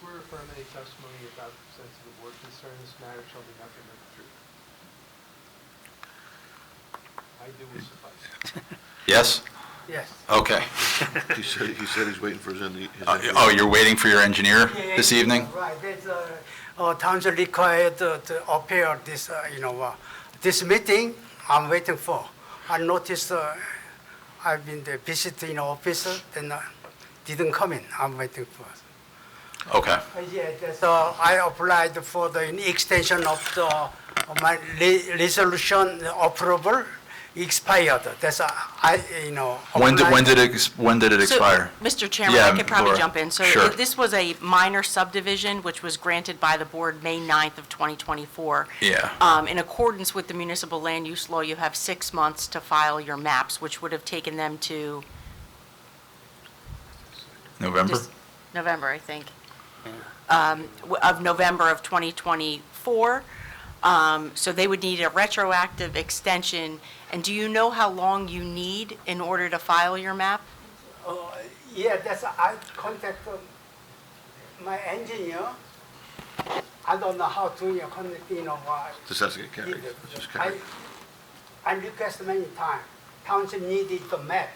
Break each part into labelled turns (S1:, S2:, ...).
S1: swear or affirm any testimony you're about to present to the board concerning this matter shall be nothing but the truth? I do will suffice.
S2: Yes?
S1: Yes.
S2: Okay.
S3: He said, he said he's waiting for his, indi- his
S2: Uh,
S3: individual.
S2: Oh, you're waiting for your engineer this evening?
S4: Right, that's, uh, uh, town's required to to appear this, uh, you know, uh, this meeting I'm waiting for. I noticed, uh, I've been there visiting office, then uh, didn't come in, I'm waiting for.
S2: Okay,
S4: Uh, Yeah, that's, uh, I applied for the extension of the, of my re- resolution approval expired. That's, uh, I, you know.
S2: when did, when
S4: applied-
S2: did it, ex- when did it
S5: So,
S2: expire?
S5: Mr. Chairman,
S2: Yeah,
S5: I could probably
S2: Laura,
S5: jump in. So
S2: sure.
S5: if this was a minor subdivision, which was granted by the board May 9th of 2024.
S2: Yeah.
S5: Um, In accordance with the municipal land use law, you have six months to file your maps, which would have taken them to
S2: November?
S5: Dis- November, I think, Um, w- of November of 2024. Um, So they would need a retroactive extension. And do you know how long you need in order to file your map?
S4: Uh, Yeah, that's, I contact um, my engineer. I don't know how to, you know, contact, you know, why.
S3: Just has to get carried. Just
S4: I,
S3: carried.
S4: I request many times, township needed the map,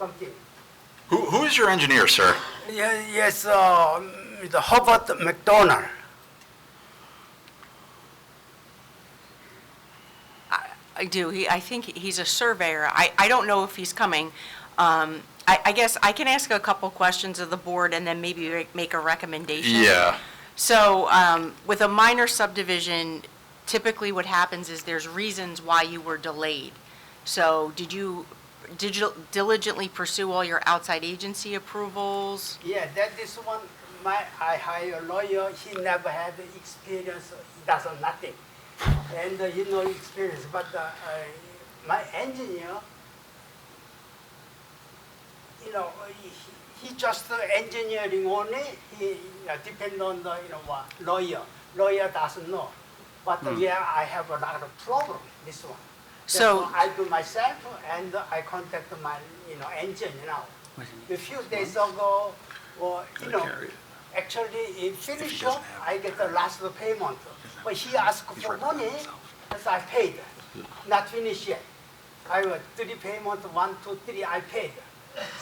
S4: something.
S2: Who, who is your engineer, sir?
S4: Yeah, yes, uh, the Hobart McDonald.
S5: I do. He, I think he's a surveyor. I, I don't know if he's coming. Um, I, I guess I can ask a couple questions of the board and then maybe re- make a recommendation.
S2: Yeah,
S5: So, um, with a minor subdivision, typically what happens is there's reasons why you were delayed. So, did you digil- diligently pursue all your outside agency approvals?
S4: Yeah, that is one, my, I hire a lawyer, he never had experience, he does nothing. And uh, he no experience, but uh, I- my engineer, you know, he- he just uh, engineering only, he you know, depend on the, you know, what, lawyer. Lawyer doesn't know. But uh, yeah, I have a lot of problem, this one.
S5: So-
S4: Therefore, I do myself and I contact my, you know, engineer now. A few days ago, or, you know,
S3: carry it.
S4: actually, it finished up, I get the last payment. But he asked for money, as I paid, not finished yet. I was three payment, one, two, three, I paid.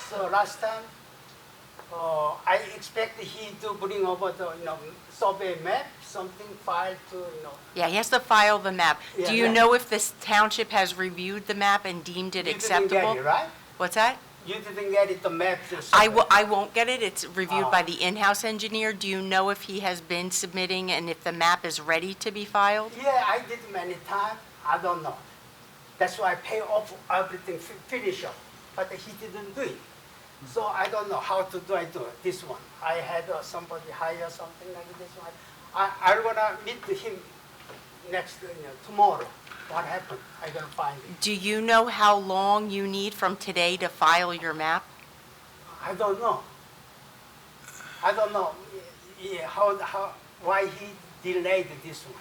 S4: So last time, uh, I expect he to bring over the, you know, survey map, something file to, you know,
S5: Yeah, he has to file the map.
S4: Yeah,
S5: Do you
S4: yeah.
S5: know if this township has reviewed the map and deemed it
S4: You didn't get it,
S5: acceptable?
S4: right?
S5: What's that?
S4: You didn't get it, the map. the
S5: I
S4: survey.
S5: will, I won't get it, it's reviewed by
S4: Oh.
S5: the in-house engineer. Do you know if he has been submitting and if the map is ready to be filed?
S4: Yeah, I did many times. I don't know. That's why I pay off everything, fi- finish up. But he didn't do it. So I don't know how to do I do it, this one. I had uh, somebody hire something like this one. I I wanna meet him next you know, tomorrow. What happened? I gonna find it.
S5: Do you know how long you need from today to file your map?
S4: I don't know. I don't know. Yeah, how how why he delayed this one.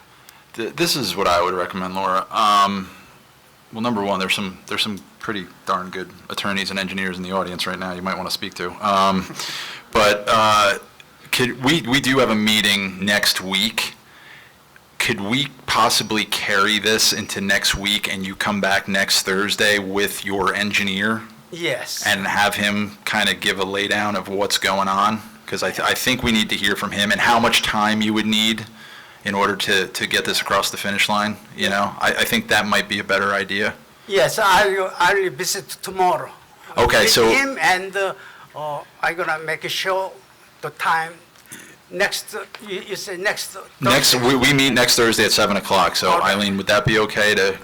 S2: Th- this is what I would recommend, Laura. Um, well, number one, there's some, there's some pretty darn good attorneys and engineers in the audience right now you might want to speak to. Um, but, uh, could, we, we do have a meeting next week. Could we possibly carry this into next week and you come back next Thursday with your engineer?
S4: Yes.
S2: and have him kind of give a laydown of what's going on? Because I, th- I think we need to hear from him and how much time you would need in order to, to get this across the finish line, you know? I, I think that might be a better idea.
S4: Yes, I'll, I'll visit tomorrow.
S2: Okay,
S4: With
S2: so-
S4: him and, uh, uh, i gonna make sure the time, next, uh, you, you say next. uh,
S2: Next,
S4: Thursday.
S2: we, we meet next Thursday at 7 o'clock, so
S4: Okay.
S2: Eileen, would that be okay to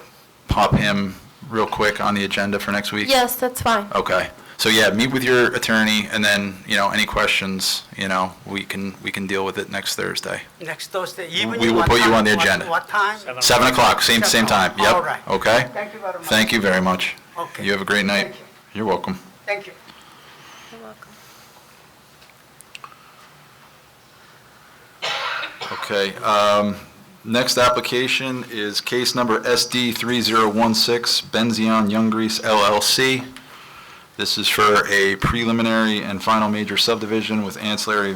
S2: pop him real quick on the agenda for next week?
S6: Yes, that's fine.
S2: Okay. So yeah, meet with your attorney and then, you know, any questions, you know, we can, we can deal with it next Thursday.
S4: Next Thursday evening.
S2: We will
S4: what
S2: put you
S4: time-
S2: on the
S4: what-
S2: agenda.
S4: What time?
S2: 7 o'clock, same, same time, yep.
S4: All right.
S2: Okay?
S4: Thank you very much.
S2: Thank you very much.
S4: Okay.
S2: You have a great night.
S4: Thank you.
S2: You're welcome.
S4: Thank you.
S2: Okay, um, next application is case number SD 3016, Benzion Young Grease LLC. This is for a preliminary and final major subdivision with ancillary